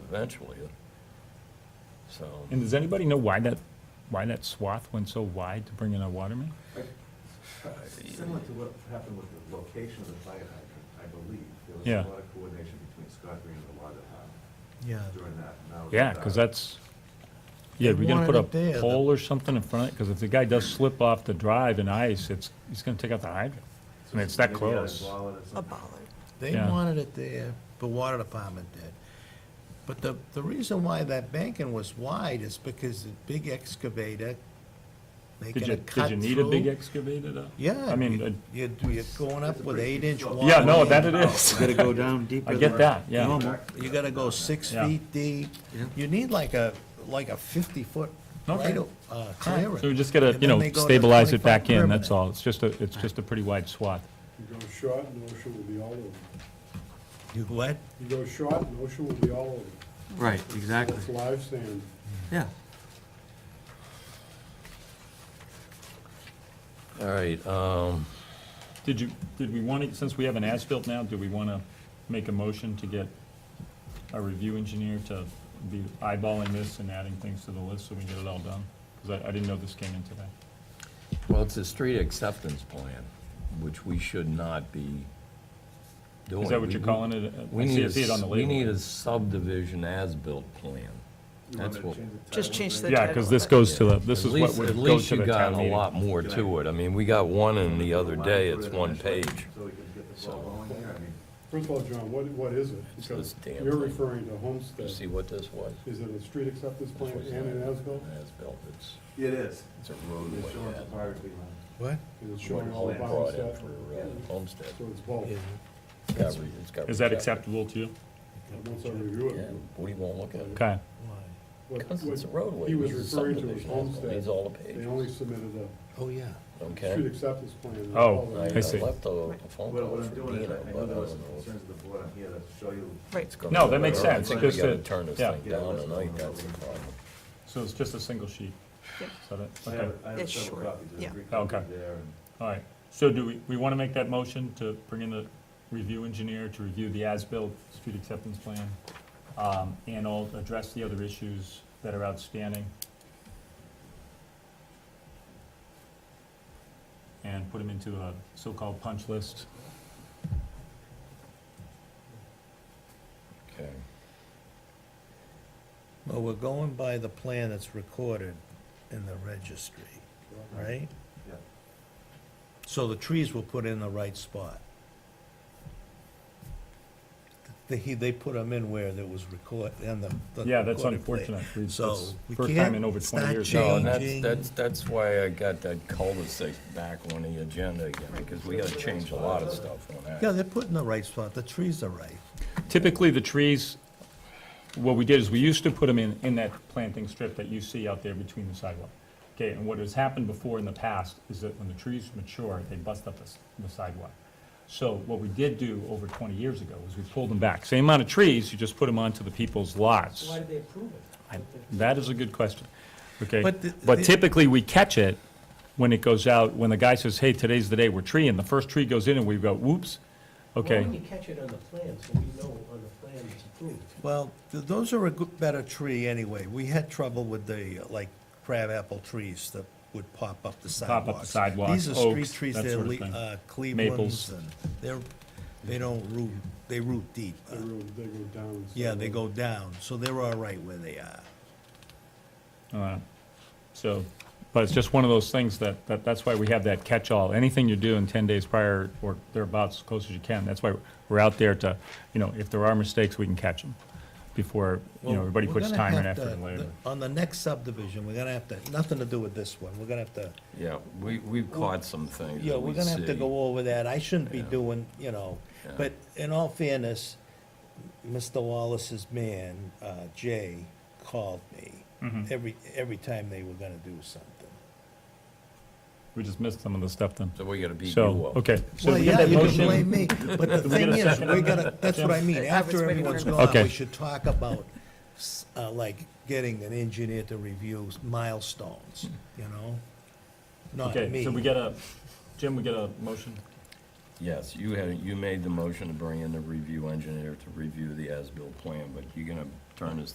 eventually. So, And does anybody know why that, why that swath went so wide to bring in a water main? Similar to what happened with the location of the fire hydrant, I believe. There was Yeah. a lot of coordination between Scott Green and the water department Yeah, during that. uh, and now it's Yeah, not. because that's, yeah, They we gonna wanted put it there, a the- pole or something in front of it, because if the guy does slip off the drive in ice, it's, he's gonna take out the hydrant. I mean, it's that Maybe out in close. Wallet or something. they Yeah. wanted it there, the water department did. But the, the reason why that banking was wide is because the big excavator, they Did gonna you, cut did you need a big through. excavator though? Yeah. I mean, you- uh, You're, you're going up with eight inch water. yeah, no, main. that it is. Gotta go down deeper. I get than- that, yeah. Normal. You gotta go six Yeah. feet deep. You need like a, like a fifty foot Okay. right, o- uh, clearing. So we just gotta, And you then know, they go to stabilize it 25 back in, that's permanent. all. It's just a, it's just a pretty wide swath. You go short, and OSHA will be all over. you. You what? You go short, and OSHA will be all over. you. Right, exactly, It's live sand. yeah. all right, um, Did you, did we want to, since we have an as-built now, do we want to make a motion to get our review engineer to be eyeballing this and adding things to the list so we can get it all done? Because I, I didn't know this came in today. well, it's a street acceptance plan, which we should not be doing. Is that what We- you're calling it? I We see- need, I a see it on s- the we label. need a subdivision as-built plan. You want That's me to what- change the Just title change of the- it? Yeah, because this goes to the, this At is what least- would go to the town At least you got a meeting. lot more to it. I mean, we got one in the other day, it's one page. So we can get the ball going here, I mean. First of all, John, what, what is it? It's Because this damn You're thing. referring to You Homestead. see what this was? Is it a street acceptance plan This was and an as-built? an as-built. It's, It is. it's a It's roadway. showing that- topography line. What? Is it what showing all Holt of brought in Homestead? for uh, Homestead. So it's both. Yeah. It's got re- it's got Is that rejected. acceptable to you? Once I review Yeah, it. what do you want to look at? Okay. Why? what- Because it's a what roadway. He was This is referring to his subdivision as-built. Homestead. These all the They only pages, submitted Oh, yeah. a street okay? acceptance plan. and Oh, all I that. I see. I left a a phone What call what I'm for doing is, Dina, I- I know but I there don't was some know. concerns of the board, I'm here to show you. Right, It's gonna No, be that makes a- I sense, think we just gotta to- turn this yeah. thing down tonight, that's the problem. So it's just a single sheet? Yep. Is that it? I Okay. have, I have It's several short, copies, there's yeah. three copies Okay. there, and All right, so do we, we want to make that motion to bring in the review engineer to review the as-built street acceptance plan? um, And all, address the other issues that are outstanding? And put them into a so-called punch list? Okay. Well, we're going by the plan that's recorded in the registry, right? Yeah. So the trees were put in the right spot. They, he- they put them in where there was record, and the. the Yeah, that's recorded plan. unfortunate. We- So, that's we First time can't- in over it's 20 not years. No, and changed. that's, Changing. that's, that's why I got that cul-de-sac back on the agenda again, because we gotta change a lot of stuff on that. Yeah, they're put in the right spot, the trees are right. Typically, the trees, what we did is we used to put them in, in that planting strip that you see out there between the sidewalk. Okay, and what has happened before in the past is that when the trees mature, they bust up the s- the sidewalk. So what we did do over 20 years ago is we pulled them back. Same amount of trees, you just put them onto the people's lots. Why did they approve it? I- That is a good question, okay? But the- But the- typically, we catch it when it goes out, when the guy says, hey, today's the day we're treeing, the first tree goes in and we go, whoops, Why okay? didn't you catch it on the plan, so we know on the plan it's approved? Well, th- those are a good, better tree anyway. We had trouble with the, uh, like, crabapple trees that would pop up the Pop sidewalks. up the sidewalks, These are street oaks, trees, that they're sort of le- thing. uh, Maples. Cleveland's, and they're, they don't root, they root deep. They Uh, really- they go down. so- Yeah, they go down, so they're all right where they are. Uh, So, but it's just one of those things that, that, that's why we have that catch-all. Anything you do in ten days prior or thereabouts, as close as you can, that's why we're out there to, you know, if there are mistakes, we can catch them before, you Well, know, everybody we're puts gonna time and have to- effort in later. the- On the next subdivision, we're gonna have to, nothing to do with this one, we're gonna have to, Yeah, we, we've caught some things yeah, that we're we gonna have to see. go over that. I shouldn't be Yeah. doing, you know, Yeah. but in all fairness, Mr. Wallace's man, uh, Jay, called me Mm-hmm. every, every time they were gonna do something. We just missed some of the stuff then. So we uh, gotta beat you So, up. okay. So Well, we get yeah, that you can motion. blame me, but the we get thing a is, second on we're that, gonna, that's what I mean, I was after waiting for everyone's him to- gone, Okay. we should talk about, s- uh, like, getting an engineer to review milestones, you know? Not Okay, me. so we get a, Jim, we get a motion? Yes, you had, you made the motion to bring in the review engineer to review the as-built plan, but you're gonna turn is